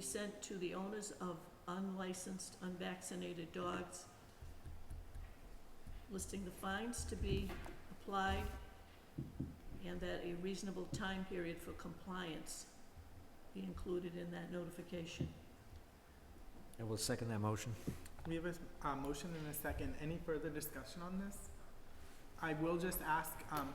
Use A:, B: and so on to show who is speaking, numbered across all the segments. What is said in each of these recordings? A: sent to the owners of unlicensed, unvaccinated dogs, listing the fines to be applied, and that a reasonable time period for compliance be included in that notification.
B: I will second that motion.
C: We have a, s- a motion and a second. Any further discussion on this? I will just ask, um,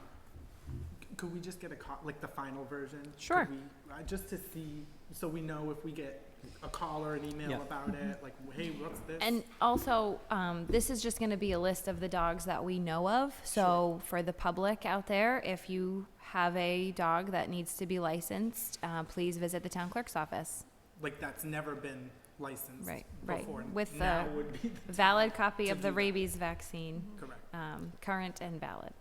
C: c- could we just get a co- like the final version? Could
D: Sure.
C: we- uh, Just to see, so we know if we get a call or an email
B: Yeah.
C: about it, like, hey, what's this?
D: Mm-hmm. And also, um, this is just going to be a list of the dogs that we know of. So for the public out there, if you have a dog that needs to be licensed, uh, please visit the town clerk's office.
C: Like, that's never been licensed
D: Right, right.
C: before.
D: With uh,
C: Now
D: the
C: would be the
D: Valid copy
C: To
D: of
C: do
D: the
C: that.
D: rabies vaccine,
C: correct.
D: um, current and valid.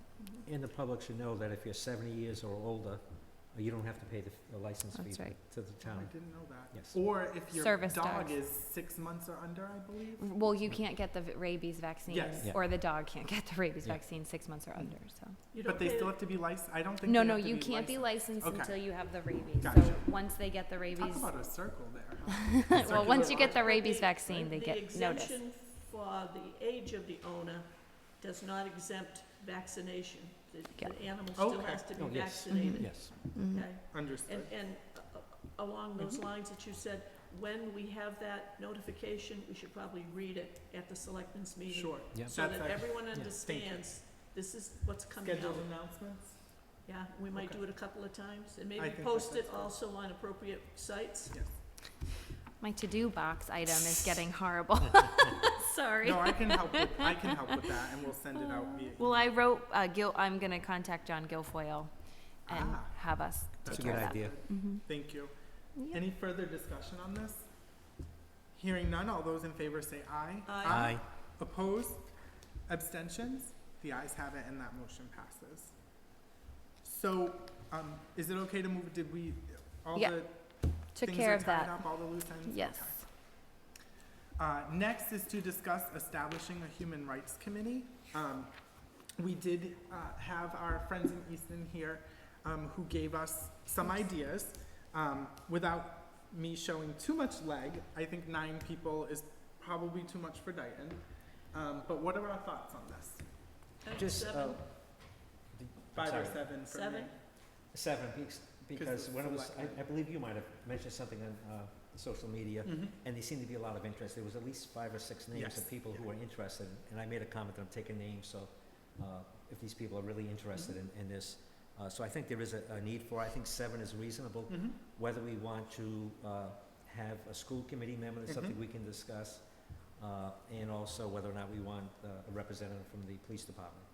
B: And the public should know that if you're 70 years or older, uh, you don't have to pay the the license fee
D: That's
B: to
D: right.
B: to the
C: Oh, I
B: town.
C: didn't know that.
B: Yes.
C: Or if your
D: Service
C: dog
D: dogs.
C: is six months or under, I believe.
D: Well, you can't get the v- rabies vaccine,
C: Yes.
B: Yeah.
D: or the dog can't get the rabies
B: Yeah.
D: vaccine six months or under, so.
A: You don't
C: But they
A: pay-
C: still have to be licensed. I don't think
D: No,
C: they
D: no,
C: have to
D: you
C: be
D: can't be
C: licensed.
D: licensed
C: Okay.
D: until you have the rabies. So
C: Gotcha.
D: once they get the rabies,
C: Talk about a circle there. huh?
D: well,
C: Circular
D: once you
C: logic.
D: get the rabies
A: But
D: vaccine, they
A: the
D: get notice.
A: exemption for the age of the owner does not exempt vaccination. The,
D: Yeah.
A: the animal still
C: Okay. Mm-hmm.
A: has to be
B: Oh, yes.
A: vaccinated,
B: Yes.
D: Mhm.
A: okay?
C: Understood.
A: And, and uh, uh, along those
C: Mm-hmm.
A: lines that you said, when we have that notification, we should probably read it at the selectmen's meeting.
C: Sure.
B: Yep.
A: So
C: That's
A: that
C: ac-
A: everyone
B: you.
A: understands, this is what's coming out.
C: Scheduled announcements?
A: Yeah, we might
C: Okay.
A: do it a couple of times, and
C: I
A: maybe
C: think that
A: post it
C: that's fine.
A: also on appropriate sites.
C: Yes.
D: My to-do box item is getting horrible. Sorry. Oh.
C: No, I can help with, I can help with that and we'll send it out via.
D: Well, I wrote, uh, Gil, I'm gonna contact John Guilfoyle and
C: Ah.
D: have us
B: That's a
D: take
B: good
D: care of that.
B: idea.
D: Mhm.
C: Thank you.
D: Yeah.
C: Any further discussion on this? Hearing none, all those in favor say aye.
A: Aye.
B: Um,
C: Opposed? Abstentions? The ayes have it and that motion passes. So, um, is it okay to move, did we, all
D: Yeah.
C: the
D: Took
C: things
D: care
C: are
D: of
C: tied
D: that,
C: up, all the loose ends?
D: yes.
C: Okay. Uh, next is to discuss establishing a human rights committee. Um, we did, uh, have our friends in Easton here, um, who gave us some ideas. Um, without me showing too much leg, I think nine people is probably too much for Dayton. Um, but what are our thoughts on this?
A: Item
B: Just, uh,
A: seven,
B: the- I'm
C: Five or
B: sorry.
C: seven for me?
A: Seven?
B: Seven, because- because
C: the
B: when it was, I-
C: selectmen-
B: I believe you might have mentioned something on uh, social media,
C: Mhm.
B: and there seemed to be a lot of interest. There was at least five or six names
C: Yes,
B: of people who
C: yeah.
B: were interested, and I made a comment that I'm taking names, so uh, if these people are really interested in in this. uh, So I think there is a a need for, I think seven is reasonable.
C: Mhm.
B: whether we want to uh, have a school committee member, that's something
C: Mhm.
B: we can discuss, uh, and also whether or not we want uh, a representative from the police department.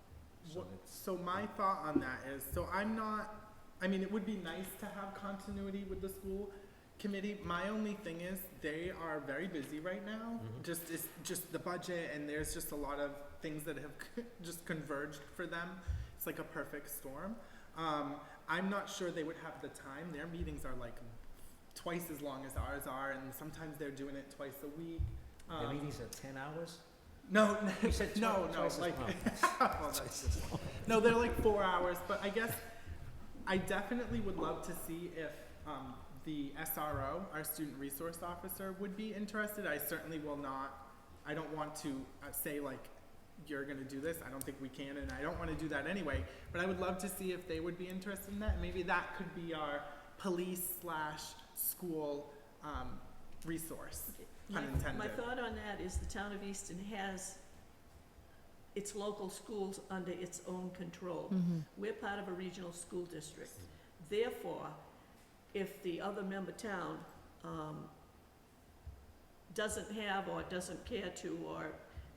B: So
C: What-
B: that's,
C: So my thought on that is, so I'm not, I mean, it would be nice to have continuity with the school committee. My only thing is, they are very busy right now.
B: Mhm.
C: Just, it's just the budget and there's just a lot of things that have just converged for them. It's like a perfect storm. Um, I'm not sure they would have the time. Their meetings are like twice as long as ours are and sometimes they're doing it twice a week.
B: the
C: Um,
B: meetings are ten hours?
C: No,
B: You said twi-
C: no, no,
B: twice as
C: like,
B: long.
C: Oh, that's no, they're like four hours, but I guess I definitely would love to see if um, the SRO, our student resource officer, would be interested. I certainly will not. I don't want to uh, say like you're going to do this. I don't think we can, and I don't want to do that anyway. But I would love to see if they would be interested in that. Maybe that could be our police slash school um, resource.
A: My- My
C: Unintended.
A: thought on that is the town of Easton has its local schools under its own control.
D: Mhm.
A: We're part of a regional school district. Therefore, if the other member town um, doesn't have or doesn't care to, or,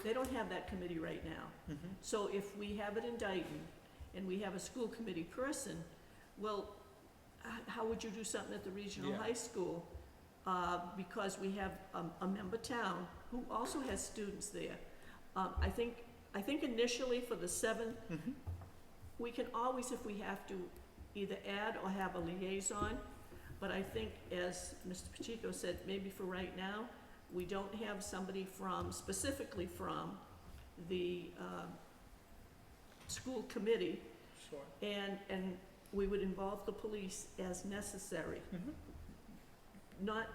A: they don't have that committee right now.
C: Mhm.
A: So if we have it in Dayton and we have a school committee person, well, h- how would you do something at the regional
C: Yeah.
A: high school? Uh, because we have um, a, a member town who also has students there. Um, I think, I think initially for the seven,
C: Mhm.
A: we can always, if we have to, either add or have a liaison. But I think, as Mr. Pacheco said, maybe for right now, we don't have somebody from, specifically from the, um, school committee,
C: Sure.
A: and,
C: Mm-hmm.
A: and we would involve the police as necessary.
C: Mhm.
A: Not